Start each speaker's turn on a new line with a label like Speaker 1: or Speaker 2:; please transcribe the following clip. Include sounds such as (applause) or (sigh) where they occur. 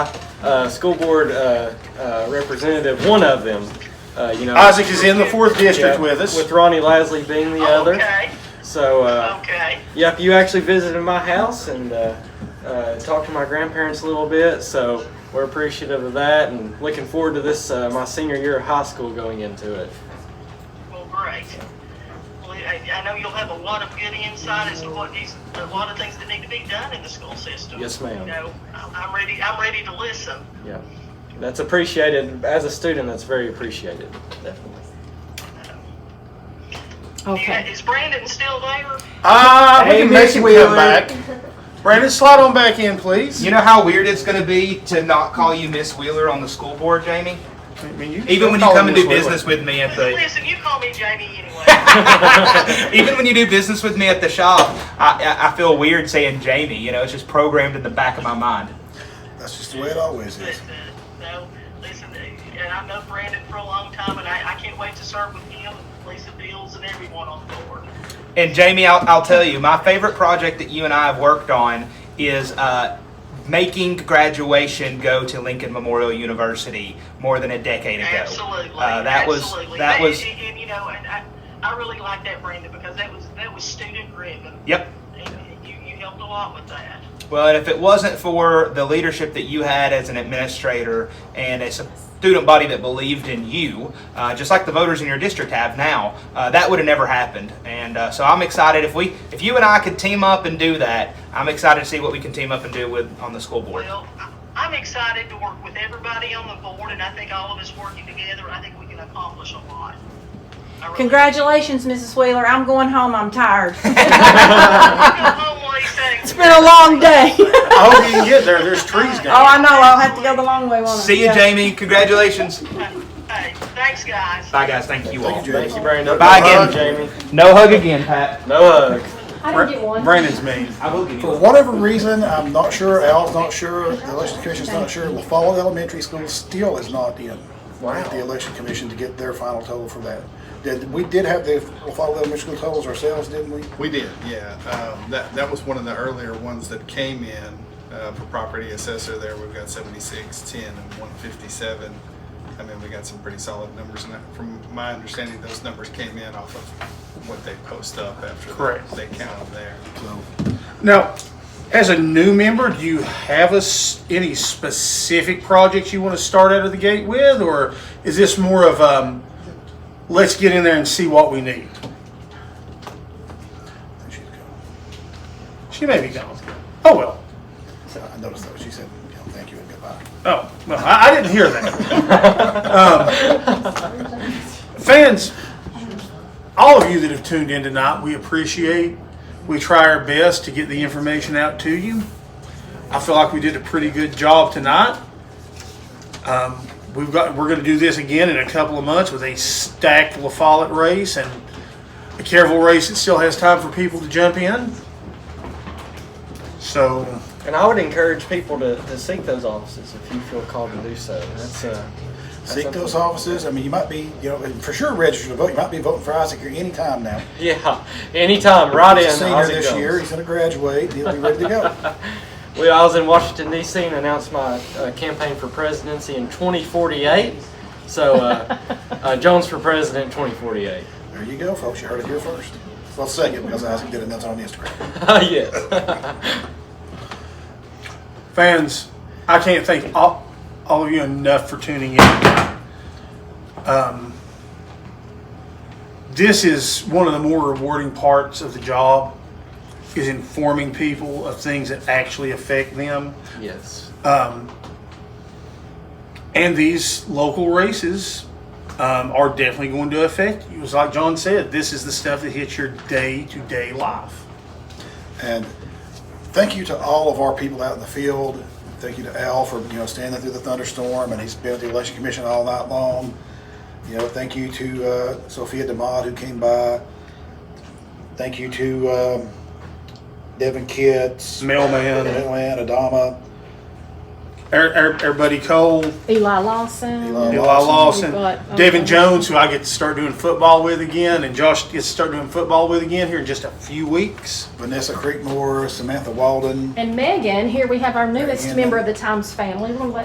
Speaker 1: uh, school board uh, uh, representative, one of them, uh, you know.
Speaker 2: Isaac is in the fourth district
Speaker 1: yeah,
Speaker 2: with us.
Speaker 1: With Ronnie Lasley being the other.
Speaker 3: Oh, Okay,
Speaker 1: So, uh,
Speaker 3: okay.
Speaker 1: yep, you actually visited my house and uh, uh, talked to my grandparents a little bit. So we're appreciative of that and looking forward to this, uh, my senior year of high school going into it.
Speaker 3: Well, great. Well, I, I know you'll have a lot of good insight as to what needs, a lot of things that need to be done in the school system.
Speaker 1: Yes, ma'am.
Speaker 3: You know, I- I'm ready, I'm ready to listen.
Speaker 1: Yeah. That's appreciated. As a student, that's very appreciated. Definitely.
Speaker 3: Yeah,
Speaker 4: Okay.
Speaker 3: Is Brandon still there?
Speaker 2: Ah, we
Speaker 5: Hey,
Speaker 2: can make
Speaker 5: Miss
Speaker 2: him
Speaker 5: Wheeler.
Speaker 2: come back. Brandon, slide on back in, please.
Speaker 5: You know how weird it's going to be to not call you Miss Wheeler on the school board, Jamie?
Speaker 2: I mean, you-
Speaker 5: Even when you
Speaker 2: call
Speaker 5: come
Speaker 2: him
Speaker 5: and do
Speaker 2: Miss Wheeler.
Speaker 5: business with me
Speaker 3: (laughs)
Speaker 5: at the. (laughs)
Speaker 3: Listen, you call me
Speaker 1: (laughs)
Speaker 3: Jamie anyway. uh,
Speaker 5: Even when you do business with me at the shop, I, I, I feel weird saying Jamie. You know, it's just programmed in the back of my mind.
Speaker 6: That's just the way it always
Speaker 3: But,
Speaker 6: is.
Speaker 3: uh, no, listen, uh, and I've known Brandon for a long time, and I, I can't wait to serve with him, Lisa Fields, and everyone on the board.
Speaker 5: And Jamie, I'll, I'll tell you, my favorite project that you and I have worked on is uh, making graduation go to Lincoln Memorial University more than a decade ago.
Speaker 3: Absolutely.
Speaker 5: Uh, that
Speaker 3: absolutely.
Speaker 5: was that was
Speaker 3: and, and, you know, and I, I really like that Brandon because that was that was student driven,
Speaker 5: yep.
Speaker 3: and you, you helped a lot with that.
Speaker 5: Well, and if it wasn't for the leadership that you had as an administrator and a student body that believed in you, uh, just like the voters in your district have now, uh, that would have never happened. And uh, so I'm excited if we, if you and I could team up and do that, I'm excited to see what we can team up and do with on the school board.
Speaker 3: Well, I- I'm excited to work with everybody on the board, and I think all of us working together, I think we can accomplish a lot. I really-
Speaker 4: Congratulations, Mrs. Wheeler. I'm going home. I'm tired.
Speaker 3: Go home, Lisa.
Speaker 4: It's been a long day. (laughs) oh,
Speaker 2: I hope you can get there. There's trees down.
Speaker 4: I know. I'll have to go the long way, won't I?
Speaker 5: See you,
Speaker 4: Yeah.
Speaker 5: Jamie. Congratulations.
Speaker 3: Hey, thanks, guys.
Speaker 5: Bye, guys. Thank you all.
Speaker 6: Thank you,
Speaker 1: Thank
Speaker 6: James.
Speaker 1: you, Brandon.
Speaker 5: Bye
Speaker 1: Hug,
Speaker 5: again.
Speaker 1: Jamie.
Speaker 5: No hug again, Pat.
Speaker 1: No hug.
Speaker 7: I didn't get one.
Speaker 2: Brandon's mean.
Speaker 5: I will give
Speaker 6: For whatever reason, I'm not sure, Al's not sure, the election commission's not sure, LaFalle Elementary School still is not in at the election commission to get their final total for that. Did, we did have the LaFalle Elementary School totals ourselves, didn't we?
Speaker 8: We did, yeah. Um, that, that was one of the earlier ones that came in uh, for property assessor there. We've got 76, 10, and 157. I mean, we got some pretty solid numbers. And that- from my understanding, those numbers came in off of what they post up after
Speaker 2: Correct.
Speaker 8: they count them there.
Speaker 2: Now, as a new member, do you have a s any specific projects you want to start out of the gate with, or is this more of um, let's get in there and see what we need?
Speaker 6: She's gone.
Speaker 2: She may be gone. Oh well.
Speaker 6: I noticed that, she said, you know, thank you and goodbye.
Speaker 2: Oh well, I, I didn't hear that. um, fans, all of you that have tuned in tonight, we appreciate. We try our best to get the information out to you. I feel like we did a pretty good job tonight. Um, we've got we're going to do this again in a couple of months with a stacked La Follette race and a careful race that still has time for people to jump in. So.
Speaker 1: And I would encourage people to, to seek those offices if you feel called to do so. That's uh, that's
Speaker 6: Seek
Speaker 1: something-
Speaker 6: those offices, I mean, you might be, you know, and for sure registered to vote, you might be voting for Isaac here anytime now.
Speaker 1: Yeah, anytime, right in.
Speaker 6: He's a senior
Speaker 1: Ozzie
Speaker 6: this
Speaker 1: Jones.
Speaker 6: year, he's gonna graduate, he'll be ready to go.
Speaker 1: Well, I was in Washington D.C. and announced my uh, campaign for presidency in 2048. So
Speaker 6: (laughs)
Speaker 1: uh, uh, Jones for president 2048.
Speaker 6: There you go, folks. You heard it here first. Well, second, because Isaac did it, and that's on Instagram.
Speaker 1: (laughs) yes.
Speaker 2: fans, I can't thank all, all of you enough for tuning in. Um, this is one of the more rewarding parts of the job is informing people of things that actually affect them.
Speaker 1: yes.
Speaker 2: Um, and these local races um, are definitely going to affect you. It's like John said, this is the stuff that hits your day to day life.
Speaker 6: And thank you to all of our people out in the field. Thank you to Al for you know standing through the thunderstorm, and he's been at the election commission all night long. You know, thank you to uh, Sophia Demod who came by. Thank you to um, Devin Kitts,
Speaker 2: Mailman,
Speaker 6: Atlanta, Adama,
Speaker 2: our, our, our buddy Cole,
Speaker 4: Eli Lawson.
Speaker 6: Eli
Speaker 2: Eli Lawson,
Speaker 4: Lawson. But-
Speaker 2: Devin
Speaker 4: okay.
Speaker 2: Jones, who I get to start doing football with again, and Josh gets to start doing football with again here in just a few weeks.
Speaker 6: Vanessa Creekmore, Samantha Walden.
Speaker 7: And Megan, here we have our newest
Speaker 6: Megan.
Speaker 7: member of the Times family. We're gonna let